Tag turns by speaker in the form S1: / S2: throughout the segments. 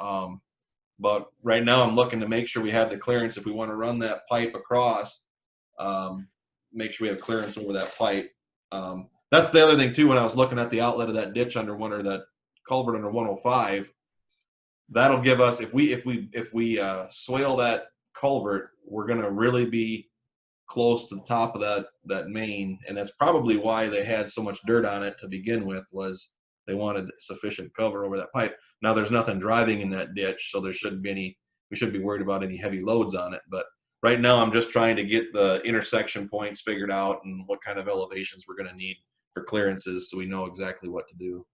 S1: Um, but right now, I'm looking to make sure we have the clearance if we want to run that pipe across. Um, make sure we have clearance over that pipe. Um, that's the other thing too. When I was looking at the outlet of that ditch under one or that culvert under 105, that'll give us if we if we if we uh, swale that culvert, we're gonna really be close to the top of that that main, and that's probably why they had so much dirt on it to begin with. Was they wanted sufficient cover over that pipe. Now there's nothing driving in that ditch, so there shouldn't be any. We shouldn't be worried about any heavy loads on it. But right now, I'm just trying to get the intersection points figured out and what kind of elevations we're going to need for clearances, so we know exactly what to do.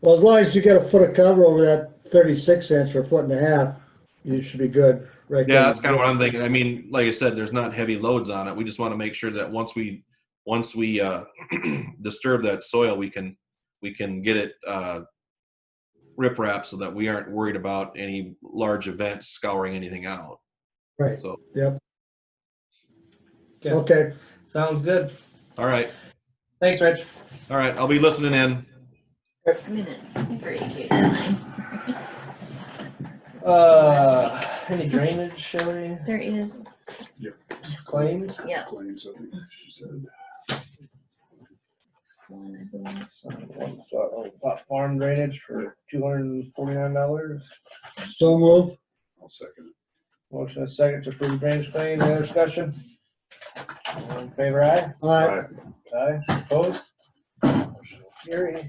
S2: Well, as long as you get a foot of cover over that 36 inch or foot and a half, you should be good right there.
S1: Yeah, that's kind of what I'm thinking. I mean, like I said, there's not heavy loads on it. We just want to make sure that once we, once we uh, disturb that soil, we can, we can get it uh, riprap so that we aren't worried about any large events scouring anything out.
S2: Right,
S1: So,
S3: Okay,
S2: okay.
S3: sounds good.
S1: all right,
S3: Thanks, Rich.
S1: all right. I'll be listening in.
S4: minutes. Great, Katie. Thanks.
S3: Uh, any drainage, Shelley?
S4: There is,
S3: Claims?
S4: yeah.
S5: Claims, I think she said.
S4: one, I believe.
S3: So, uh, Farm drainage for two hundred and forty-nine dollars.
S2: So move.
S5: I'll second it.
S3: Motion is second to approve drainage claim. Any other discussion? All in favor, aye?
S2: Aye.
S3: Aye, opposed? Motion will Carry.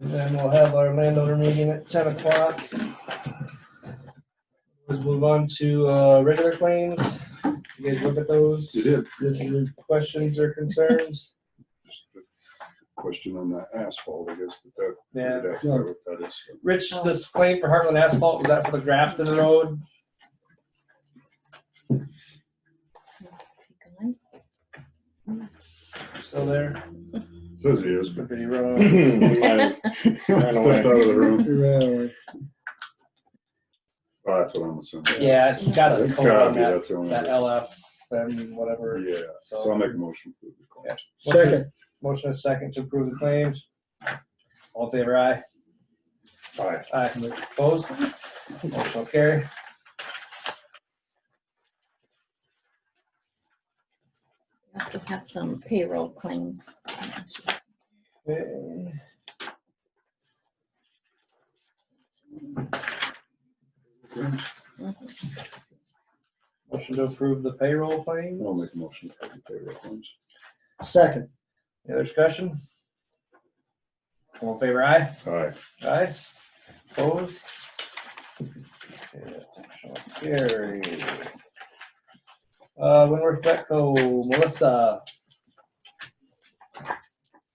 S3: And then we'll have our landowner meeting at ten o'clock. Let's move on to, uh, regular claims. You guys look at those,
S5: You did.
S3: if you have questions or concerns.
S5: Just a Question on the asphalt, I guess, but that.
S3: Yeah.
S5: that's not what That is.
S3: Rich, this claim for Heartland Asphalt, was that for the Grafton Road? Still there?
S5: Says he is, but.
S3: Pretty wrong.
S5: Stepped out of the room.
S2: Really?
S5: Oh, that's what I'm assuming.
S3: Yeah, it's got a
S5: It's
S3: code
S5: gotta
S3: on
S5: be,
S3: that,
S5: that's the only.
S3: that LF and whatever.
S5: Yeah, so I'll
S3: So,
S5: make a motion. for the claims.
S2: Second.
S3: motion is second to approve the claims. All in favor, aye.
S5: Aye.
S3: Aye, opposed? Motion will carry.
S4: We Also have some payroll claims.
S3: Okay.
S4: Mhm.
S3: Motion to approve the payroll claim.
S5: I'll make a motion. for the payroll claims.
S2: Second.
S3: Any other discussion? All in favor, aye?
S5: Aye.
S3: Aye. Opposed? Okay, shall Carry. Uh, Winworth Betco, Melissa,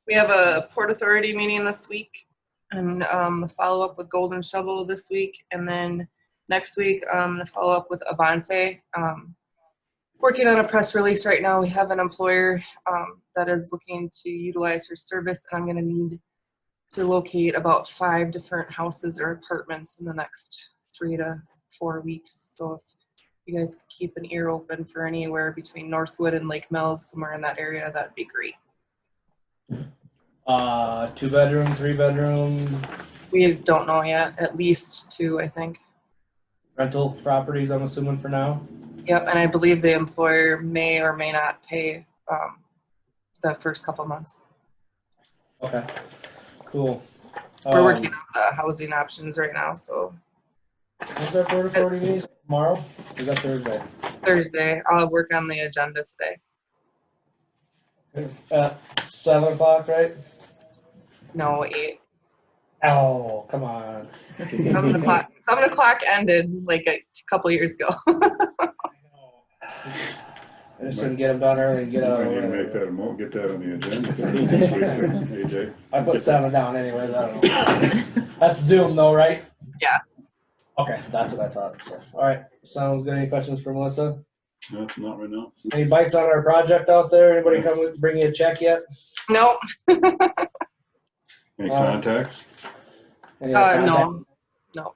S6: We have a Port Authority meeting this week and um, a follow-up with Golden Shovel this week. And then next week, um, a follow-up with Avance. Um, Working on a press release right now. We have an employer um, that is looking to utilize her service and I'm gonna need to locate about five different houses or apartments in the next three to four weeks. So if you guys could keep an ear open for anywhere between Northwood and Lake Mills, somewhere in that area, that'd be great.
S3: uh, two bedroom, three bedroom,
S6: We don't know yet, at least two, I think.
S3: rental properties, I'm assuming for now.
S6: Yep, and I believe the employer may or may not pay um, the first couple months.
S3: Okay, cool.
S6: We're working
S3: Um,
S6: on the housing options right now, so
S3: Is that Board of Authority meeting tomorrow? Is that Thursday?
S6: Thursday, I'll work on the agenda today.
S3: At seven o'clock, right?
S6: No, eight.
S3: Oh, come on.
S6: Seven o'clock, seven o'clock ended like a couple years ago.
S3: I just didn't get them done early and
S5: We
S3: get out of
S5: need to make
S3: the way.
S5: that a mo, get that on the agenda for next week, AJ.
S3: I put seven down anyways, I don't know. That's Zoom though, right?
S6: Yeah.
S3: Okay, that's what I thought. So, all right, sounds good. Any questions for Melissa?
S5: No, not right now.
S3: Any bites on our project out there? Anybody come with- bring you a check yet?
S6: No,
S5: Any
S3: Uh,
S5: contacts?
S3: Any
S6: uh,
S3: other
S6: no,